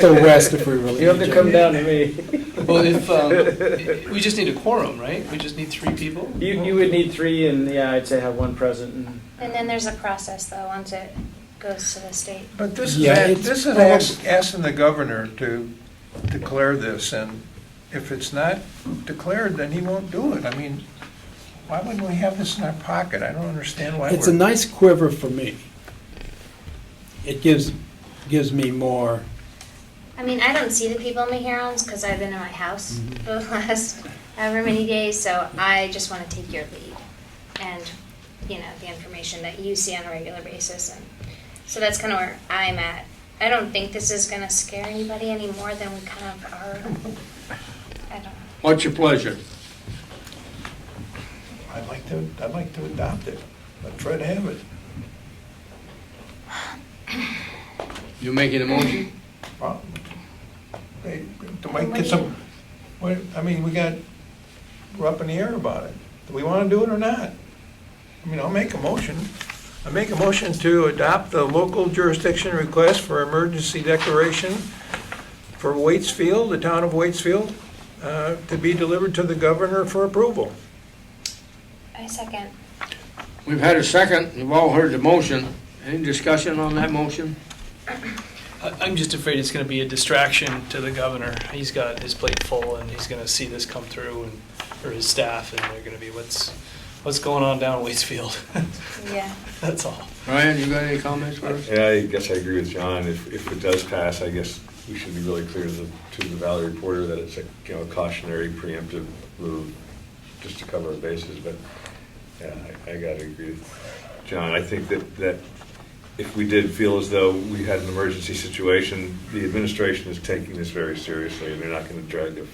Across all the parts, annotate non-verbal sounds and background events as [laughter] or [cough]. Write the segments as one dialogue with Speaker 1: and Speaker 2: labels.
Speaker 1: the west if we really
Speaker 2: You have to
Speaker 1: need
Speaker 2: come down to me.
Speaker 3: Well, if, um, [laughs] we just need a quorum, right? We just need three people?
Speaker 2: You, you would need three and, yeah, I'd say have one present and.
Speaker 4: And then there's a process though, once it goes to the state.
Speaker 5: But this is,
Speaker 1: Yeah, it's
Speaker 5: this is
Speaker 1: probab-
Speaker 5: ask- asking the governor to declare this, and if it's not declared, then he won't do it. I mean, why wouldn't we have this in our pocket? I don't understand why
Speaker 1: It's a
Speaker 5: we're,
Speaker 1: nice quiver for me. It gives, gives me more,
Speaker 4: I mean, I don't see the people in my herons because I've been in my house for the last however many days, so I just want to take your lead and, you know, the information that you see on a regular basis. And so that's kind of where I'm at. I don't think this is going to scare anybody any more than we kind of are. I don't know.
Speaker 6: What's your pleasure?
Speaker 5: I'd like to, I'd like to adopt it, but try to have it.
Speaker 6: You making a motion?
Speaker 5: Well, hey, Do we get some, what, I mean, we got, we're up in the air about it. Do we want to do it or not? I mean, I'll make a motion. I make a motion to adopt the local jurisdiction request for emergency declaration for Waitsfield, the town of Waitsfield, uh, to be delivered to the governor for approval.
Speaker 4: I second.
Speaker 6: We've had a second, you've all heard the motion. Any discussion on that motion?
Speaker 3: I- I'm just afraid it's going to be a distraction to the governor. He's got his plate full, and he's going to see this come through, and, or his staff, and they're going to be, what's, what's going on down Waitsfield? [laughs]
Speaker 4: Yeah.
Speaker 3: That's all.
Speaker 6: Ryan, you got any comments first?
Speaker 7: Yeah, I guess I agree with John. If, if it does pass, I guess we should be really clear to the, to the Valley Reporter that it's a, you know, cautionary preemptive move just to cover our bases, but yeah, I, I gotta agree with John. I think that, that if we did feel as though we had an emergency situation, the administration is taking this very seriously and they're not gonna drag their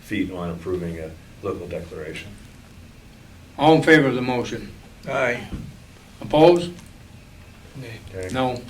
Speaker 7: feet on approving a local declaration.
Speaker 6: All in favor of the motion?
Speaker 5: Aye.
Speaker 6: Opposed?
Speaker 3: Okay.
Speaker 7: okay?
Speaker 6: No.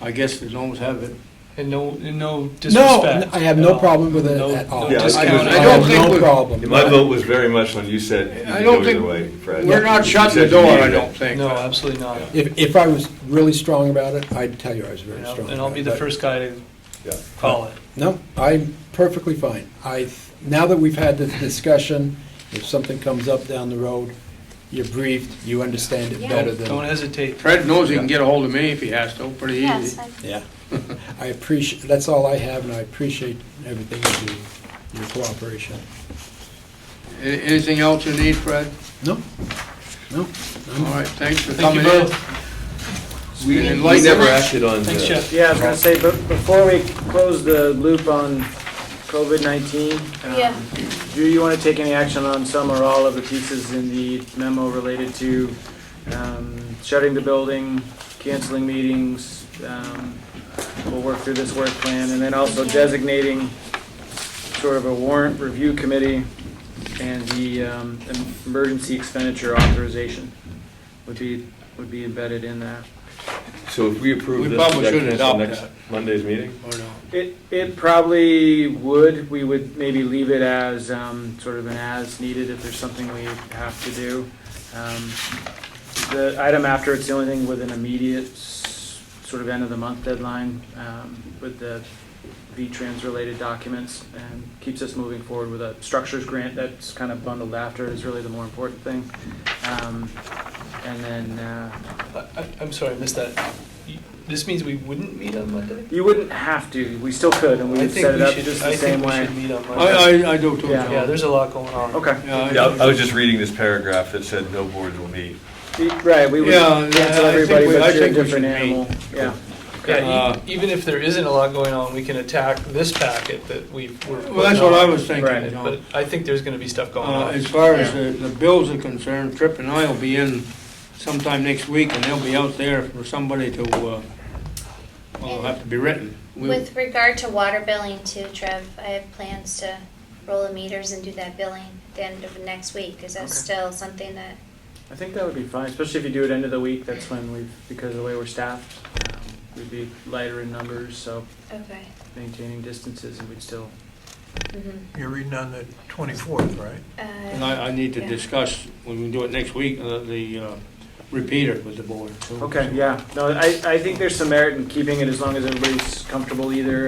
Speaker 6: I guess the noes have it.
Speaker 3: And no, and no
Speaker 1: no,
Speaker 3: disrespect.
Speaker 1: I have
Speaker 3: at
Speaker 1: no
Speaker 3: all.
Speaker 1: problem with it
Speaker 3: No-
Speaker 1: at all.
Speaker 3: no
Speaker 7: Yeah, I
Speaker 3: discount.
Speaker 7: don't- I
Speaker 1: I
Speaker 6: don't
Speaker 1: have
Speaker 6: think we-
Speaker 1: no problem.
Speaker 7: My vote was very much when you said you
Speaker 6: I
Speaker 7: could
Speaker 6: don't
Speaker 7: go either
Speaker 6: think-
Speaker 7: way, Fred.
Speaker 6: We're not
Speaker 7: You
Speaker 6: shutting the
Speaker 7: said you
Speaker 6: door, I
Speaker 7: needed it.
Speaker 6: don't think.
Speaker 3: No, absolutely not.
Speaker 1: If, if I was really strong about it, I'd tell you I was very
Speaker 3: And
Speaker 1: strong.
Speaker 3: I'll- and
Speaker 1: about
Speaker 3: I'll be
Speaker 1: it,
Speaker 3: the
Speaker 1: but-
Speaker 3: first guy to
Speaker 7: Yeah.
Speaker 3: call it.
Speaker 1: No, I'm perfectly fine. I, now that we've had this discussion, if something comes up down the road, you're briefed, you understand it
Speaker 4: Yeah.
Speaker 1: better
Speaker 3: Don't
Speaker 1: than,
Speaker 3: hesitate.
Speaker 6: Fred knows he can get a hold of me if he has to, pretty
Speaker 4: Yes.
Speaker 6: easy.
Speaker 4: I-
Speaker 1: yeah. [laughs] I appreciate, that's all I have, and I appreciate everything you do, your cooperation.
Speaker 6: A- Anything else you need, Fred?
Speaker 1: No, no,
Speaker 6: All right, thanks for
Speaker 3: Thank you
Speaker 6: coming in.
Speaker 3: both.
Speaker 7: We
Speaker 6: And
Speaker 7: we
Speaker 6: like-
Speaker 7: never acted on the.
Speaker 3: Thanks, Jeff.
Speaker 2: Yeah, I was gonna say, but before we close the loop on COVID-19, um,
Speaker 4: Yeah.
Speaker 2: do you want to take any action on some or all of the pieces in the memo related to um, shutting the building, canceling meetings? um, We'll work through this work plan, and then also designating sort of a warrant review committee and the um, emergency expenditure authorization would be, would be embedded in that.
Speaker 7: So if we
Speaker 6: We
Speaker 7: approve this,
Speaker 6: probably
Speaker 7: that
Speaker 6: should
Speaker 7: comes to
Speaker 6: adopt
Speaker 7: next
Speaker 6: that.
Speaker 7: Monday's meeting?
Speaker 6: Or no?
Speaker 2: It, it probably would, we would maybe leave it as, um, sort of an as needed if there's something we have to do. Um, The item after, it's the only thing with an immediate, s- sort of end of the month deadline, um, with the V-Trans related documents, and keeps us moving forward with a structures grant that's kind of bundled after is really the more important thing. Um, And then, uh,
Speaker 3: I- I- I'm sorry, I missed that. You- This means we wouldn't meet on Monday?
Speaker 2: you wouldn't have to, we still could, and we
Speaker 3: I
Speaker 2: would
Speaker 3: think
Speaker 2: set it
Speaker 3: we
Speaker 2: up
Speaker 3: should-
Speaker 2: just
Speaker 3: I
Speaker 2: the
Speaker 3: think
Speaker 2: same
Speaker 3: we
Speaker 2: way.
Speaker 3: should meet on Monday.
Speaker 6: I, I, I do too,
Speaker 2: Yeah.
Speaker 6: John.
Speaker 3: Yeah, there's a lot going on.
Speaker 2: Okay.
Speaker 6: I-
Speaker 7: Yeah, I was just reading this paragraph that said no boards will meet.
Speaker 2: Right, we would
Speaker 6: Yeah,
Speaker 2: cancel
Speaker 6: I think
Speaker 2: everybody,
Speaker 6: we- I
Speaker 2: but you're a
Speaker 6: think we should
Speaker 2: different
Speaker 6: meet.
Speaker 2: animal. Yeah,
Speaker 3: Yeah,
Speaker 6: Uh,
Speaker 3: e- even if there isn't a lot going on, we can attack this packet that we were.
Speaker 6: Well, that's what I was
Speaker 2: Right.
Speaker 6: thinking, you know.
Speaker 3: But I think there's gonna be stuff going
Speaker 6: Uh,
Speaker 3: on.
Speaker 6: As far as the the bills are concerned, Tripp and I will be in sometime next week, and they'll be out there for somebody to, uh, well, it'll have to be written. We-
Speaker 4: With regard to water billing too, Trev, I have plans to roll the meters and do that billing at the end of next week. Is that
Speaker 2: Okay.
Speaker 4: still something that,
Speaker 2: I think that would be fine, especially if you do it end of the week, that's when we've, because of the way we're staffed, um, we'd be lighter in numbers, so
Speaker 4: okay.
Speaker 2: maintaining distances, and we'd still,
Speaker 4: mhm.
Speaker 5: You're reading on the 24th, right?
Speaker 4: Uh,
Speaker 6: And I, I need to discuss, when we do it next week, uh, the, uh, repeat it with the board. so-
Speaker 2: Okay, yeah, no, I, I think there's some merit in keeping it as long as everybody's comfortable either